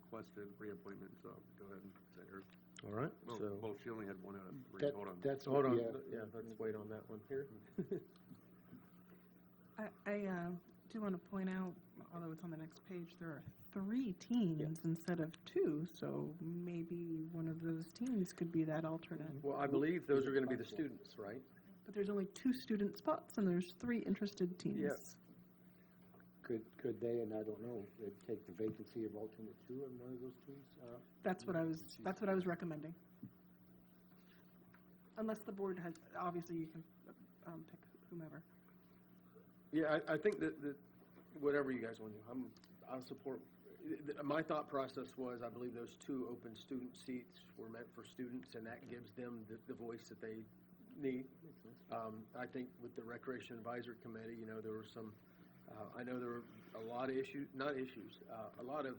requested reappointment, so go ahead and say her. All right, Well, so, well, she only had one out of three, That, hold on. that's, hold on, yeah, yeah, let's wait on that one here. I, I uh, do want to point out, although it's on the next page, there are three teams instead of two, so maybe one of those teams could be that alternate. Well, I believe those are gonna be the students, right? But there's only two student spots, and there's three interested teams. Yes. could, could they, and I don't know, they take the vacancy of alternate two in one of those twos? Uh, That's what I was, that's what I was recommending. Unless the board has, obviously you can um, pick whomever. Yeah, I, I think that, that, whatever you guys want to do, I'm, I'll support. th- th- My thought process was, I believe those two open student seats were meant for students, and that gives them the, the voice that they need. Um, I think with the Recreation Advisory Committee, you know, there were some, uh, I know there were a lot of issues, not issues, uh, a lot of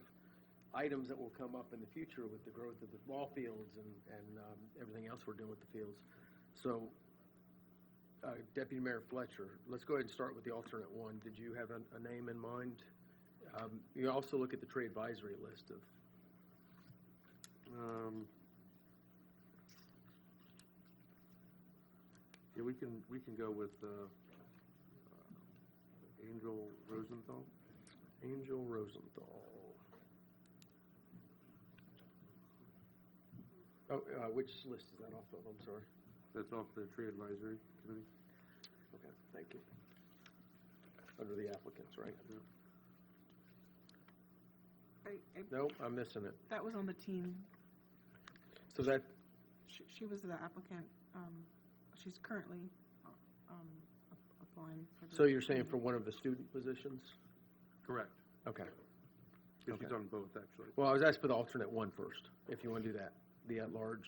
items that will come up in the future with the growth of the ball fields and, and, um, everything else we're doing with the fields. So, uh, Deputy Mayor Fletcher, let's go ahead and start with the alternate one. Did you have a, a name in mind? Um, you also look at the tree advisory list of, Um, Yeah, we can, we can go with, uh, uh, Angel Rosenthal. Angel Rosenthal. Oh, uh, which list is that off of? I'm sorry. That's off the tree advisory committee. Okay, thank you. Under the applicants, right? I, I, Nope, I'm missing it. that was on the team. So that, She, she was the applicant. Um, she's currently uh, um, a- applying. For the so you're saying team. for one of the student positions? Correct. Okay. Because she's Okay. on both, actually. Well, I was asked for the alternate one first, if you want to do that, the at-large.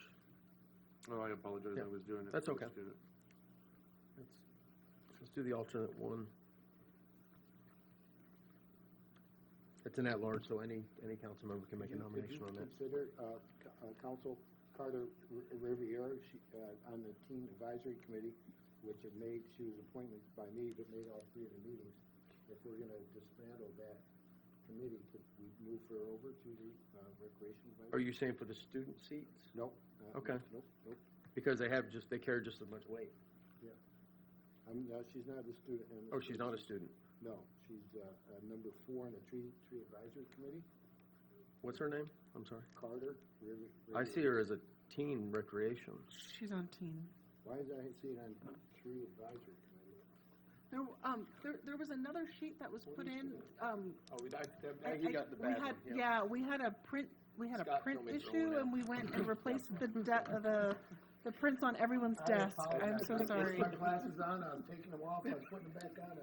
Oh, I apologize, Yeah, I was doing it. that's for okay. student. Let's, let's do the alternate one. It's an at-large, so any, any council member can make a could you- nomination on that. Could you consider, uh, C- uh, Council Carter R- Riviera, she, uh, on the team advisory committee, which had made, she was appointed by me, but made all three of the meetings. If we're gonna dismantle that committee, could we move her over to the, uh, recreation Are advisory? you saying for the student seats? Nope. uh, Okay. Nope, nope. Because they have just, they carry just as much weight. I'm, no, she's not a student. in the- Oh, she's not a student. No, she's, uh, uh, number four on the tree, tree advisory committee, What's her name? I'm sorry. Carter Rivi- I Riviera. see her as a teen recreation. She's on team. Why is I seeing on tree advisory committee? There, um, there, there was another sheet that was put in, um. Oh, we, I- I- we had- Yeah, we had a print, we had a Scott print told me to throw one issue out. and we went and replaced the de- uh, the, the prints on everyone's desk. I'm so sorry. My glasses on, I'm taking them off, I'm putting them back on.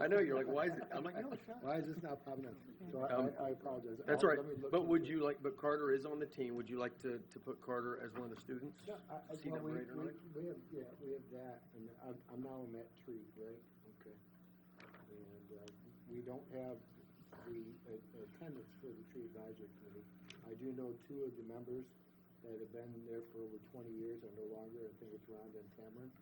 I know, you're like, why is it, I'm like, no, it's not. Why is this not popping up? So Um, I- I, I apologize. That's all I'll- right, let me look but would into it. you like, but Carter is on the team, would you like to, to put Carter as one of the students? No, I, I, See well, number we, eight or we, nine? we have, yeah, we have that, and I'm, I'm now on that tree, right? Okay. And, uh, we don't have the uh, attendance for the tree advisory committee. I do know two of the members that have been there for over twenty years are no longer, I think it's Rhonda and Cameron,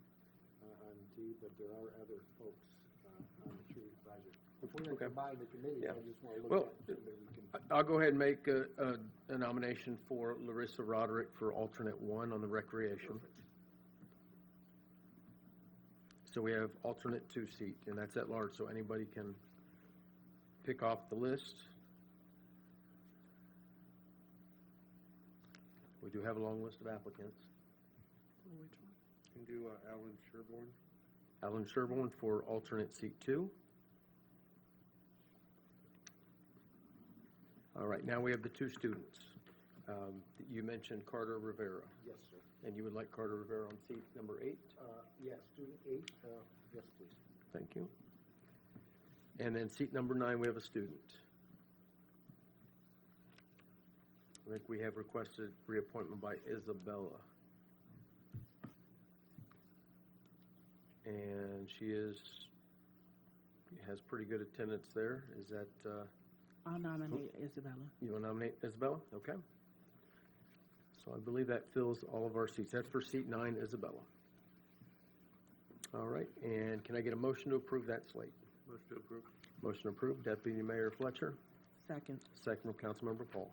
uh, on the tree, but there are other folks, uh, on the tree advisory. If we're Okay. gonna combine the committees, I Yeah. just wanna look Well, at it so that we can. I- I'll go ahead and make a, a- a nomination for Larissa Roderick for alternate one on the recreation. So we have alternate two seat, and that's at large, so anybody can pick off the list. We do have a long list of applicants. Can do uh, Alan Sherborne. Alan Sherburne for alternate seat two. All right, now we have the two students. Um, You mentioned Carter Rivera, Yes, sir. and you would like Carter Rivera on seat number eight? Uh, yeah, student eight, uh, yes, please. Thank you. And then seat number nine, we have a student. I think we have requested reappointment by Isabella. And she is, has pretty good attendance there. Is that, uh, I'll nominate Isabella. you want to nominate Isabella? Okay. So I believe that fills all of our seats. That's for seat nine, Isabella. All right, and can I get a motion to approve that slate? Motion to approve. Motion approved. Deputy Mayor Fletcher, Second. second from Councilmember Paul.